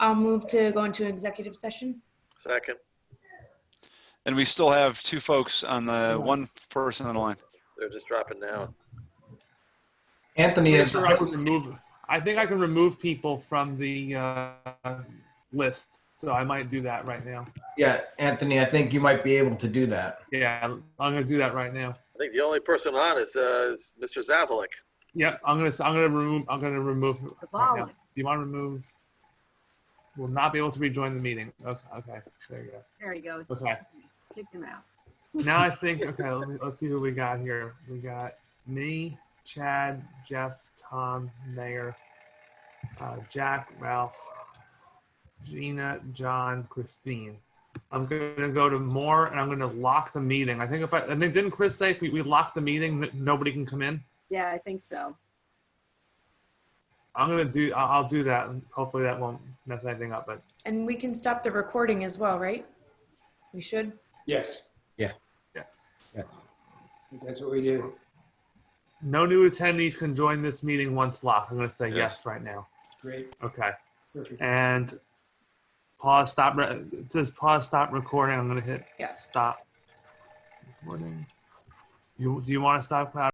I'll move to go into executive session. Second. And we still have two folks on the, one person on the line. They're just dropping down. Anthony Pretty is, sure I can remove. I think I can remove people from the uh, list, so I might do that right now. yeah, Anthony, I think you might be able to do that. Yeah, I'm gonna do that right now. I think the only person on is, uh, is Mr. Zavalik. Yeah, I'm gonna. I'm gonna remove. I'm gonna remove. Right now. Wow. Do you want to remove? Will not be able to rejoin the meeting. Okay. Okay. There you go. There he goes. Okay. Kicked him out. Now I think. Okay. Let me, let's see who we got here. We got me, Chad, Jeff, Tom, Mayor, uh, Jack, Ralph, Gina, John, Christine. I'm gonna go to more, and I'm gonna lock the meeting. I think if I, I think didn't Chris say if we, we lock the meeting that nobody can come in? Yeah, I think so. I'm gonna do. I'll, I'll do that, and hopefully that won't mess anything up. But And we can stop the recording as well, right? We should. Yes, yes, Yeah. that's what we do. no new attendees can join this meeting once locked. I'm gonna say yes, right now. Great. Okay, Perfect. and pause. Stop. Re- it says pause. Stop recording. I'm gonna hit Yes. stop. Recording. You do you want to stop cloud?